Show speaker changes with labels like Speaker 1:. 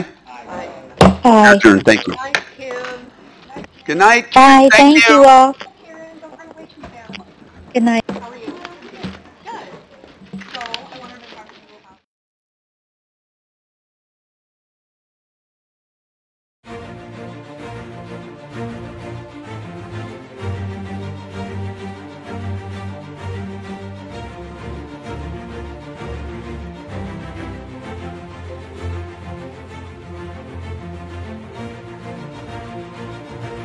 Speaker 1: Aye.
Speaker 2: Adjourned. Thank you.
Speaker 3: Thank you.
Speaker 2: Good night.
Speaker 1: Aye,
Speaker 2: Thank
Speaker 1: thank you all.
Speaker 3: Karen, don't run away too fast.
Speaker 1: Good night.